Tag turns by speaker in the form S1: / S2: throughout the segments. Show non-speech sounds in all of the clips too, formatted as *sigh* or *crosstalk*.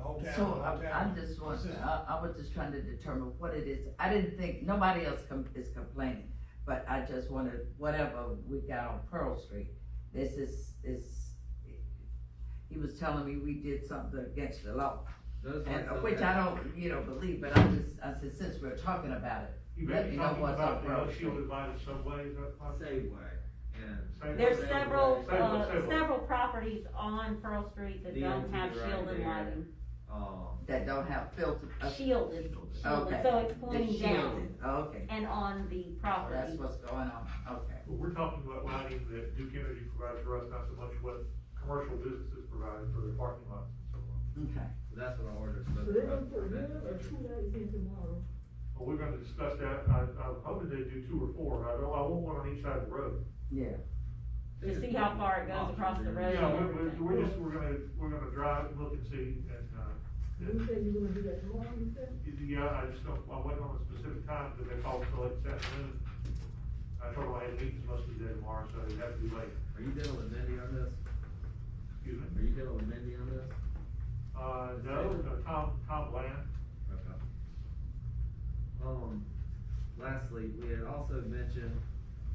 S1: hometown,
S2: So I, I
S1: hometown.
S2: just want, I, I was just trying to determine what it is. I didn't think, nobody else com- is complaining, but I just wanted, whatever we got on Pearl Street, this is, is, he was telling me we did something against the law,
S3: Those
S2: and, uh,
S3: ones
S2: which
S3: that-
S2: I don't, you know, believe, but I just, I said, since we're talking about it,
S1: You
S2: Let
S1: may
S2: me
S1: be
S2: know
S1: talking
S2: what's
S1: about
S2: up,
S1: the
S2: bro.
S1: unshielded by the subways, that part.
S3: Safeway and.
S1: Safeway.
S4: There's
S3: Safeway.
S4: several,
S1: Say what,
S4: uh,
S1: say what.
S4: several properties on Pearl Street that
S3: DMT
S4: don't have
S3: right
S4: shielded
S3: there.
S4: lighting,
S3: Um,
S2: that don't have filter. uh,
S4: shielded, shielded,
S2: Okay.
S4: so it's
S2: the
S4: pointing down
S2: shielding. Okay,
S4: and on the
S2: so that's
S4: property.
S2: what's going on, okay.
S1: But we're talking about lighting that Duke Energy provides for us, not so much what commercial businesses provide for their parking lots and so on.
S2: Okay,
S3: that's what I ordered. so uh,
S5: So
S3: that's
S5: they're
S3: about
S5: gonna
S3: the
S5: put one
S3: best
S5: or
S3: picture.
S5: two lights in tomorrow.
S1: Well, we're gonna discuss that, I, I'm hoping they do two or four, I don't, I want one on each side of the road.
S2: yeah,
S4: To see how far it goes across the road.
S1: Yeah,
S4: and
S1: we're, we're,
S4: everything.
S1: we're just, we're gonna, we're gonna drive, look and see, and, uh,
S5: You said you were gonna do that tomorrow, you said?
S1: Yeah, I just don't, I wasn't on a specific time, because they called so late this afternoon. I told them I had meetings most of the day tomorrow, so it'd have to be late,
S3: Are you dealing with Mindy on this?
S1: excuse
S3: Are
S1: me.
S3: you dealing with Mindy on this?
S1: Uh, no, no, Tom, Tom Land,
S3: Okay. Um, lastly, we had also mentioned,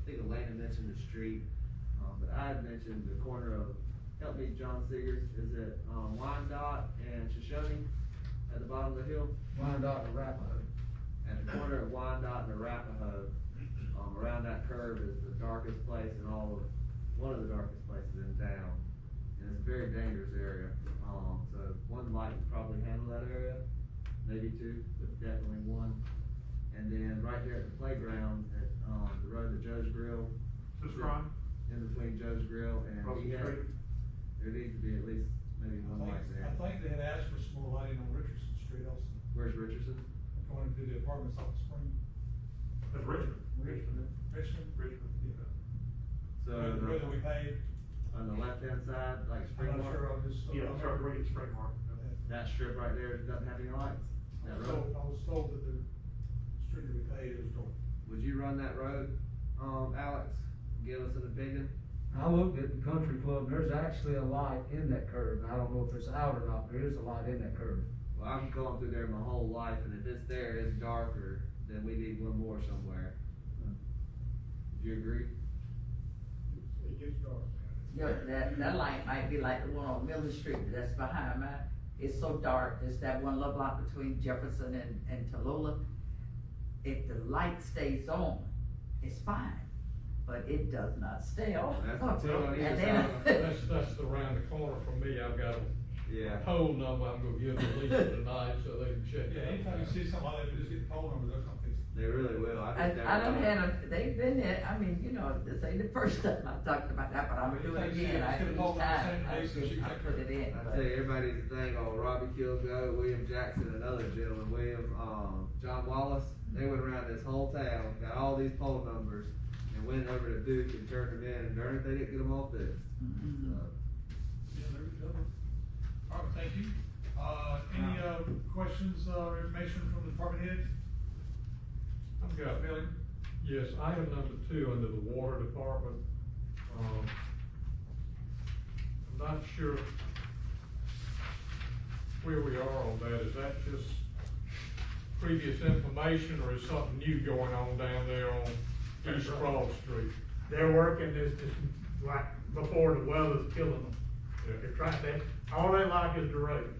S3: I think Elena mentioned the street, um, but I had mentioned the corner of, help me, John Seegers, is it, um, Wyandotte and Shoshone at the bottom of the hill?
S6: Wyandotte and Arapahoe.
S3: At the corner of Wyandotte and Arapahoe, um, around that curve is the darkest place in all of, one of the darkest places in town. And it's a very dangerous area, um, so one light would probably handle that area, maybe two, but definitely one. And then right there at the playground, at, um, the road to Joe's Grill,
S1: this Ron,
S3: in between Joe's Grill and
S1: across the
S3: he had,
S1: street.
S3: there needs to be at least maybe
S6: I
S3: one
S6: think,
S3: light there.
S6: I think they had asked for some more lighting on Richardson Street also,
S3: Where's Richardson?
S6: going into the apartments off of Spring.
S1: That's Richmond. Richmond.
S6: Richmond.
S1: Richmond, yeah.
S3: So, uh,
S6: Whether whether we paid,
S3: on the left-hand side, like
S6: I'm
S3: Spring
S6: not
S3: Mark?
S6: sure, I'm just.
S1: Yeah, it's right, right at Spring Mark.
S3: That strip right there doesn't have any lights.
S6: I
S3: That
S6: was
S3: road.
S6: told, I was told that the street that we paid is dark.
S3: Would you run that road, um, Alex? Give us an opinion.
S7: I looked at the country club, there's actually a light in that curve, I don't know if it's out or not, there is a light in that curve.
S3: Well, I've gone through there my whole life, and if it's there, it's darker, then we need one more somewhere. Do you agree?
S6: It gets dark.
S2: Yeah, that, that light might be like the one on Miller Street that's behind mine. It's so dark, it's that one little block between Jefferson and, and Tallulah. If the light stays on, it's fine, but it does not stay on. *laughs*
S3: That's the two on either
S2: And then- *laughs*
S8: That's, that's around the corner from me, I've got a
S3: Yeah.
S8: pole number I'm gonna give to Lisa tonight, so they can check
S6: Yeah,
S8: it
S6: anytime
S8: out.
S6: you see something like that, you just get the phone number, they're gonna fix it.
S3: They really will. I
S2: I,
S3: think they're. uh,
S2: I done had a, they've been there, I mean, you know, this ain't the *laughs* first time I talked about that, but I'm
S6: But you
S2: doing it
S6: think she-
S2: again,
S6: she
S2: I, each
S6: could've bought that
S2: time, I,
S6: same day, so she
S2: I
S6: took
S2: put
S6: her-
S2: it in.
S3: I
S2: but-
S3: tell you, everybody's the thing on Robbie Kilgo, William Jackson, another gentleman, William, um, John Wallace. They went around this whole town, got all these poll numbers, and went over to Duke and turned them in, and darn it, they didn't get them all fixed.
S2: Mhm.
S3: So,
S6: Yeah, there we go. All right, thank you. Uh, any, uh, questions, uh, or information from the department heads?
S8: I've got,
S6: Billy?
S8: yes, item number two, under the water department, um, I'm not sure where we are on that, is that just previous information, or is something new going on down there on East Broad Street?
S9: they're working this, this, like, before the weather's killing them.
S8: Yeah.
S9: They're trying, they, all they like is the road.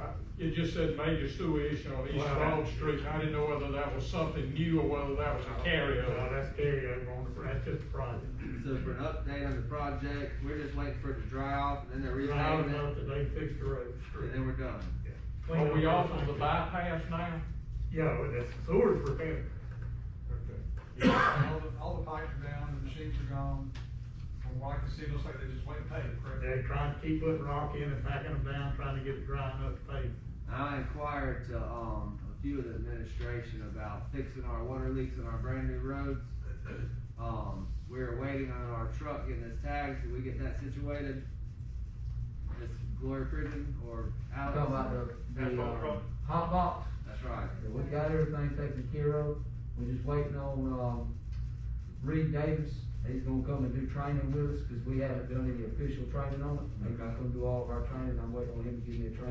S9: Uh, Right?
S8: It just said major sewer issue on East
S9: Well,
S8: Broad
S9: that-
S8: Street, and I didn't know whether that was something new or whether that was a
S9: Well,
S8: carryover.
S9: that's carryover on the, that's just a project.
S3: So for an update on the project, we're just waiting for it to dry off and then they're
S9: Loud
S3: repaving
S9: enough
S3: it,
S9: that they fixed the road.
S3: and then we're done.
S8: Are we off of the bypass now?
S9: Yeah, but that's sewers repaired.
S6: All the, all the pipes are down, the machines are gone, from what I can see, it looks like they just went and paid, correct?
S9: They're trying to keep putting rock in and packing them down, trying to get it dry enough to pave.
S3: I inquired to, um, a few of the administration about fixing our water leaks on our brand new roads. Um, we're waiting on our truck getting its tags, did we get that situated? It's Glory Prison or Alex?
S7: Talking about the,
S1: That's
S7: the,
S1: all
S7: uh,
S1: right.
S7: hot box,
S3: That's right.
S7: we got everything taken care of, we're just waiting on, um, Reed Davis, he's gonna come and do training with us, cause we haven't done any official training on it. He's gonna
S3: Okay.
S7: come do all of our training, I'm waiting on him to give me a training